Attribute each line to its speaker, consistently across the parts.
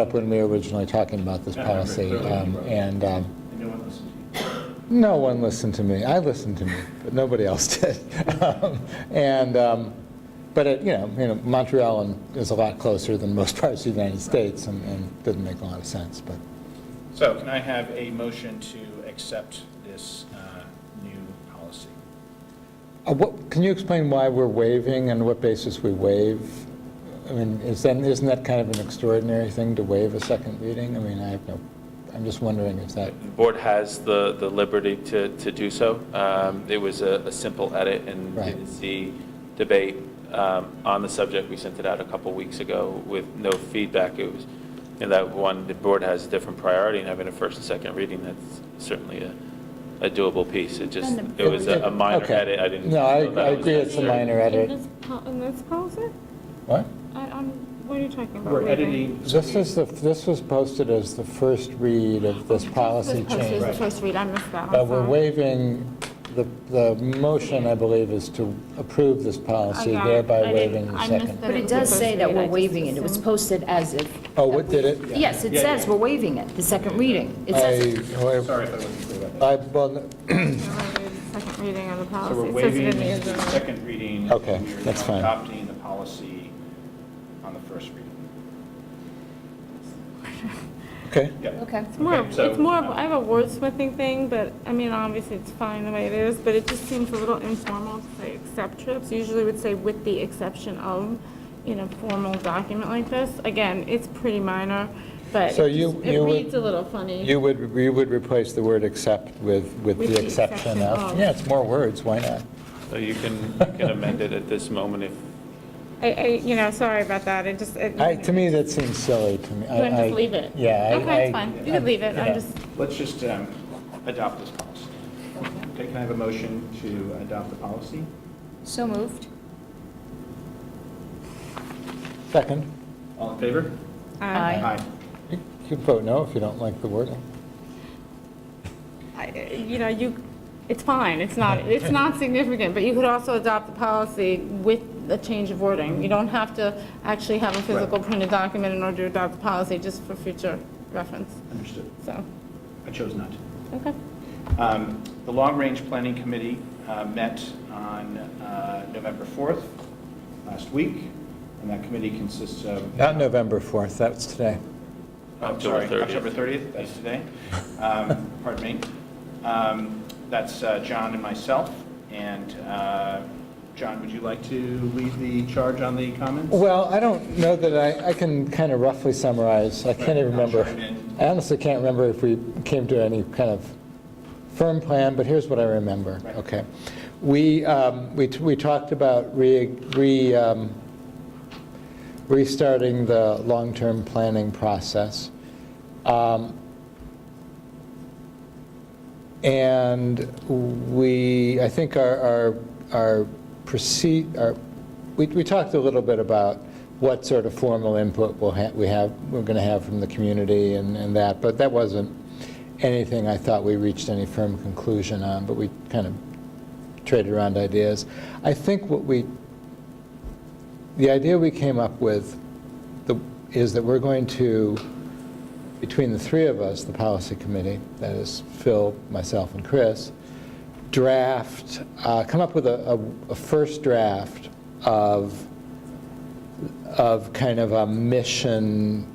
Speaker 1: up when we were originally talking about this
Speaker 2: Yeah, I remember
Speaker 1: policy,
Speaker 2: clearly.
Speaker 1: um, and um,
Speaker 2: And no one listened to you.
Speaker 1: no one listened to me. I listened to me, but nobody else did. Um, And, um, but, it- you know, you know, Montreal and- is a lot closer than most parts of the United States, and- and didn't make a lot of sense, but
Speaker 2: So can I have a motion to accept this uh, new policy?
Speaker 1: Uh, what- Can you explain why we're waiving and what basis we waive? I mean, is that, isn't that kind of an extraordinary thing to waive a second reading? I mean, I have no, I'm just wondering if that,
Speaker 3: The board has the, the liberty to, to do so. Um, It was a, a simple edit and
Speaker 1: Right.
Speaker 3: didn't see debate um, on the subject. We sent it out a couple weeks ago with no feedback. It was, and that one, the board has a different priority and having a first and second reading, that's certainly a, a doable piece. It just,
Speaker 4: And the-
Speaker 3: it was a a minor
Speaker 1: Okay.
Speaker 3: edit. I didn't.
Speaker 1: No, I-
Speaker 3: know that
Speaker 1: I
Speaker 3: it was
Speaker 1: agree it's a
Speaker 3: necessary.
Speaker 1: minor- edit.
Speaker 4: In this, po- in this policy?
Speaker 1: what?
Speaker 4: I, I'm, what are you talking about?
Speaker 2: We're
Speaker 4: Wait a minute.
Speaker 2: editing.
Speaker 1: This is the, this was posted as the first read of this policy
Speaker 4: This post was the
Speaker 1: change.
Speaker 4: first read, I missed that one.
Speaker 1: But we're
Speaker 4: sorry.
Speaker 1: waiving, the, the motion, I believe, is to approve this
Speaker 4: I
Speaker 1: policy,
Speaker 4: got it. I
Speaker 1: thereby
Speaker 4: didn't-
Speaker 1: waiving
Speaker 4: I
Speaker 1: the
Speaker 4: missed
Speaker 1: second.
Speaker 4: that
Speaker 5: But
Speaker 4: was
Speaker 5: it
Speaker 4: the
Speaker 5: does
Speaker 4: first
Speaker 5: say that
Speaker 4: read. I
Speaker 5: we're
Speaker 4: just
Speaker 5: waiving it. It was
Speaker 4: assumed.
Speaker 5: posted as if,
Speaker 1: Oh, what did it?
Speaker 5: yes, it
Speaker 2: Yeah, yeah.
Speaker 5: says we're waiving it, the second reading. It says,
Speaker 1: I, well,
Speaker 2: Sorry if I wasn't clear about that.
Speaker 1: I, well,
Speaker 4: I waived the Second reading of the
Speaker 2: So
Speaker 4: policy.
Speaker 2: we're
Speaker 4: It says it
Speaker 2: waiving
Speaker 4: in the
Speaker 2: the
Speaker 4: agenda.
Speaker 2: second reading.
Speaker 1: Okay,
Speaker 2: We are
Speaker 1: that's
Speaker 2: now
Speaker 1: fine.
Speaker 2: Adopting the policy on the first reading.
Speaker 1: okay.
Speaker 2: Yeah.
Speaker 5: okay.
Speaker 4: It's more, of-
Speaker 2: Okay, so-
Speaker 4: it's more, of- I have a wordsmithing thing, but, I mean, obviously, it's fine the way it is, but it just seems a little informal to say except trips. Usually would say with the exception of, in a formal document like this. Again, it's pretty minor, but
Speaker 1: So
Speaker 4: it
Speaker 1: you-
Speaker 4: just- it
Speaker 1: you would-
Speaker 4: reads a little funny.
Speaker 1: You would, you would replace the word except with, with
Speaker 4: With
Speaker 1: the exception of? Yeah, it's more words, why not?
Speaker 3: So you can, you can amend it at this moment if,
Speaker 4: I, I, you know, sorry about that, it just, it.
Speaker 1: I, to me, that seems silly to me.
Speaker 4: You want to
Speaker 1: I- I-
Speaker 4: just leave it?
Speaker 1: Yeah. I-
Speaker 4: Okay, it's
Speaker 1: I-
Speaker 4: fine, you can leave it,
Speaker 1: yeah.
Speaker 4: I'm just,
Speaker 2: Let's just um, adopt this policy. Okay, can I have a motion to adopt the policy?
Speaker 5: So moved.
Speaker 1: Second,
Speaker 2: All in favor?
Speaker 4: uh,
Speaker 5: Aye.
Speaker 1: you can vote no if you don't like the wording.
Speaker 4: I- you know, you, it's fine, it's not, it's not significant, but you could also adopt the policy with a change of wording. You don't have to actually have a physical printed document in order to adopt the policy, just for future reference,
Speaker 2: Understood.
Speaker 4: so,
Speaker 2: I chose not to.
Speaker 4: okay.
Speaker 2: Um, The Long Range Planning Committee uh, met on uh, November 4th, last week, and that committee consists of... oh,
Speaker 1: Not November 4th, that's today.
Speaker 2: I'm
Speaker 3: October
Speaker 2: sorry,
Speaker 3: 30th.
Speaker 2: October 30th, that's today. Um, Pardon me. Um, That's uh, John and myself, and uh, John, would you like to lead the charge on the comments?
Speaker 1: Well, I don't know that I, I can kind of roughly summarize, I can't even
Speaker 2: I'll
Speaker 1: remember.
Speaker 2: chime in.
Speaker 1: I honestly can't remember if we came to any kind of firm plan, but here's what I remember,
Speaker 2: Right.
Speaker 1: okay? We, um, we, t- we talked about re, re, um, restarting the long-term planning process. Um, And we, I think our, our, our proceed, our, we, we talked a little bit about what sort of formal input we'll have, we have, we're going to have from the community and, and that, but that wasn't anything I thought we reached any firm conclusion on, but we kind of traded around ideas. I think what we, the idea we came up with the- is that we're going to, between the three of us, the policy committee, that is Phil, myself, and Chris, draft, uh, come up with a, a- a first draft of, of kind of a mission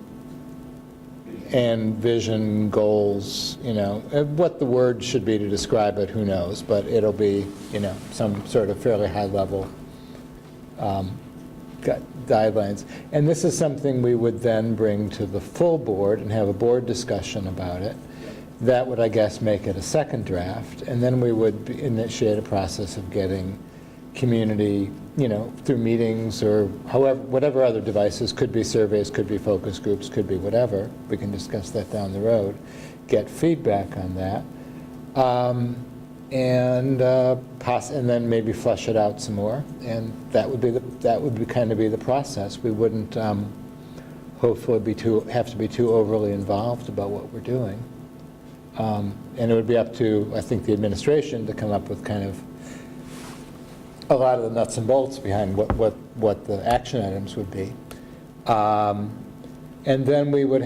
Speaker 1: and vision, goals, you know, and what the word should be to describe it, who knows, but it'll be, you know, some sort of fairly high-level gu- guidelines. And this is something we would then bring to the full board and have a board discussion about it. That would, I guess, make it a second draft, and then we would be- initiate a process of getting community, you know, through meetings or however, whatever other devices, could be surveys, could be focus groups, could be whatever, we can discuss that down the road, get feedback on that. Um, And, uh, poss- and then maybe flush it out some more. And that would be, the that would be kind of be the process. We wouldn't um, hopefully be too, have to be too overly involved about what we're doing. Um, And it would be up to, I think, the administration to come up with kind of a lot of the nuts and bolts behind what, what, what the action items would be. Um, And then we would